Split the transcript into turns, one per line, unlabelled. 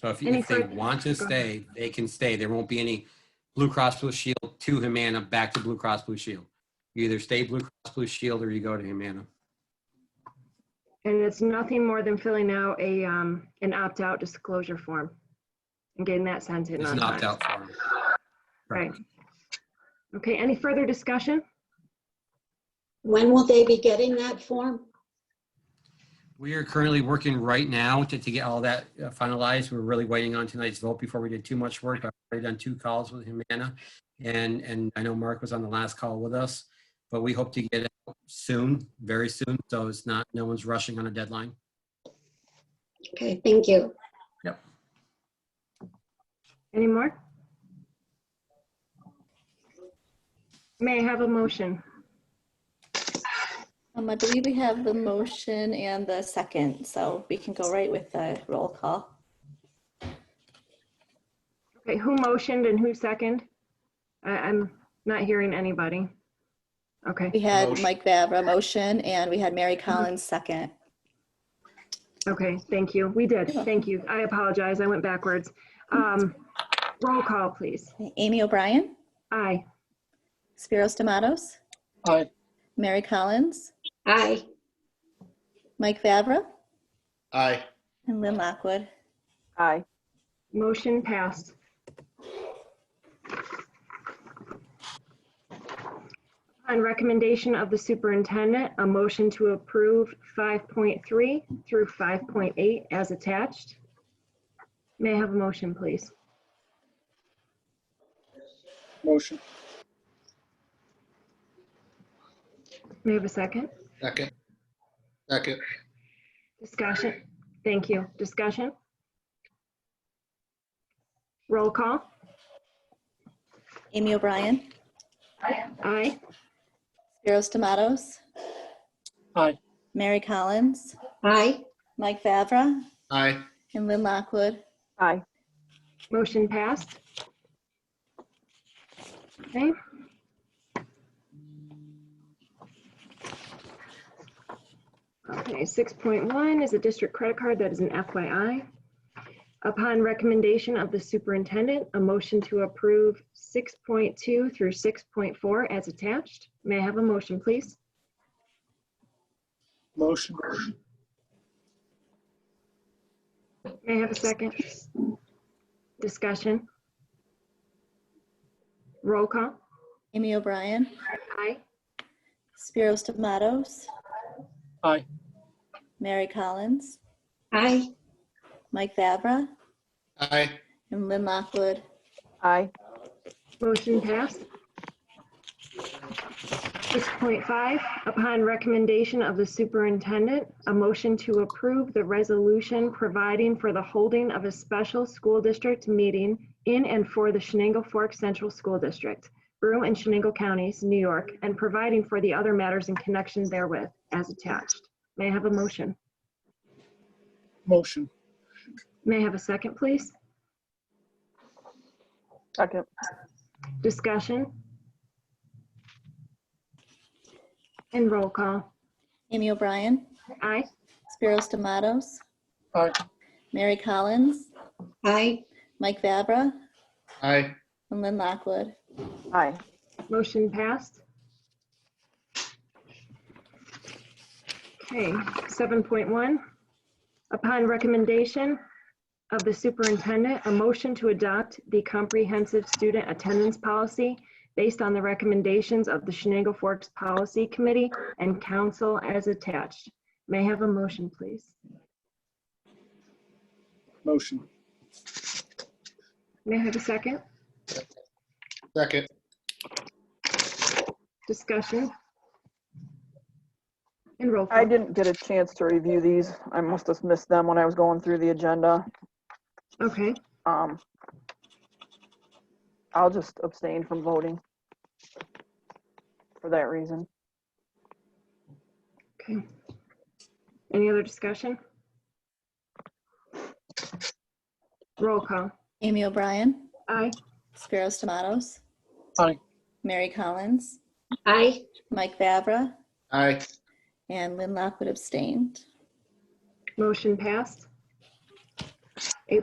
So if,
Any
if they
further-
want to
go ahead.
stay, they can stay. There won't be any Blue Cross Blue Shield to Humana, back to Blue Cross Blue Shield. You either stay Blue Cross Blue Shield or you go to Humana.
And it's nothing more than filling out a, um, an opt-out disclosure form and getting that sent in.
It's
on
an
time.
opt-out form.
Right. Okay, any further discussion?
When will they be getting that form?
We are currently working right now to, to get all that uh, finalized. We're really waiting on tonight's vote before we did too much work. I've already done two calls with Humana. And, and I know Mark was on the last call with us, but we hope to get it soon, very soon. So it's not, no one's rushing on a deadline.
Okay, thank you.
Any more? May I have a motion?
Um, I believe we have the motion and the second, so we can go right with the roll call.
Okay, who motioned and who second? I, I'm not hearing anybody. Okay,
We had Mike Vavra motion and we had Mary Collins second.
okay, thank you. We did, thank you. I apologize, I went backwards. Um, roll call, please.
Amy O'Brien,
Aye.
Spiros Tomatoes,
Aye.
Mary Collins,
Aye.
Mike Vavra,
Aye.
and Lynn Lockwood.
Aye.
Motion passed. On recommendation of the superintendent, a motion to approve 5.3 through 5.8 as attached. May I have a motion, please?
Motion.
May I have a second?
Second. Second.
Discussion. Thank you. Discussion? Roll call.
Amy O'Brien,
Aye.
Spiros Tomatoes.
Aye.
Mary Collins,
Aye.
Mike Vavra,
Aye.
and Lynn Lockwood.
Aye.
Motion passed. Okay. Okay, 6.1 is a district credit card that is an FYI. Upon recommendation of the superintendent, a motion to approve 6.2 through 6.4 as attached. May I have a motion, please?
Motion.
May I have a second? Discussion? Roll call.
Amy O'Brien,
Aye.
Spiros Tomatoes,
Aye.
Mary Collins,
Aye.
Mike Vavra,
Aye.
and Lynn Lockwood.
Aye.
Motion passed. 6.5, upon recommendation of the superintendent, a motion to approve the resolution providing for the holding of a special school district meeting in and for the Shenango Fork Central School District, Broome and Shenango Counties, New York, and providing for the other matters in connection therewith as attached. May I have a motion?
Motion.
May I have a second, please?
Second.
Discussion? And roll call.
Amy O'Brien,
Aye.
Spiros Tomatoes,
Aye.
Mary Collins,
Aye.
Mike Vavra,
Aye.
and Lynn Lockwood.
Aye.
Motion passed. Okay, 7.1. Upon recommendation of the superintendent, a motion to adopt the comprehensive student attendance policy based on the recommendations of the Shenango Forks Policy Committee and Council as attached. May I have a motion, please?
Motion.
May I have a second?
Second.
Discussion? And roll
I
call.
didn't get a chance to review these. I must have missed them when I was going through the agenda.
Okay,
Um, I'll just abstain from voting for that reason.
okay. Any other discussion? Roll call.
Amy O'Brien,
Aye.
Spiros Tomatoes.
Aye.
Mary Collins,
Aye.
Mike Vavra,
Aye.
and Lynn Lockwood abstained.
Motion passed.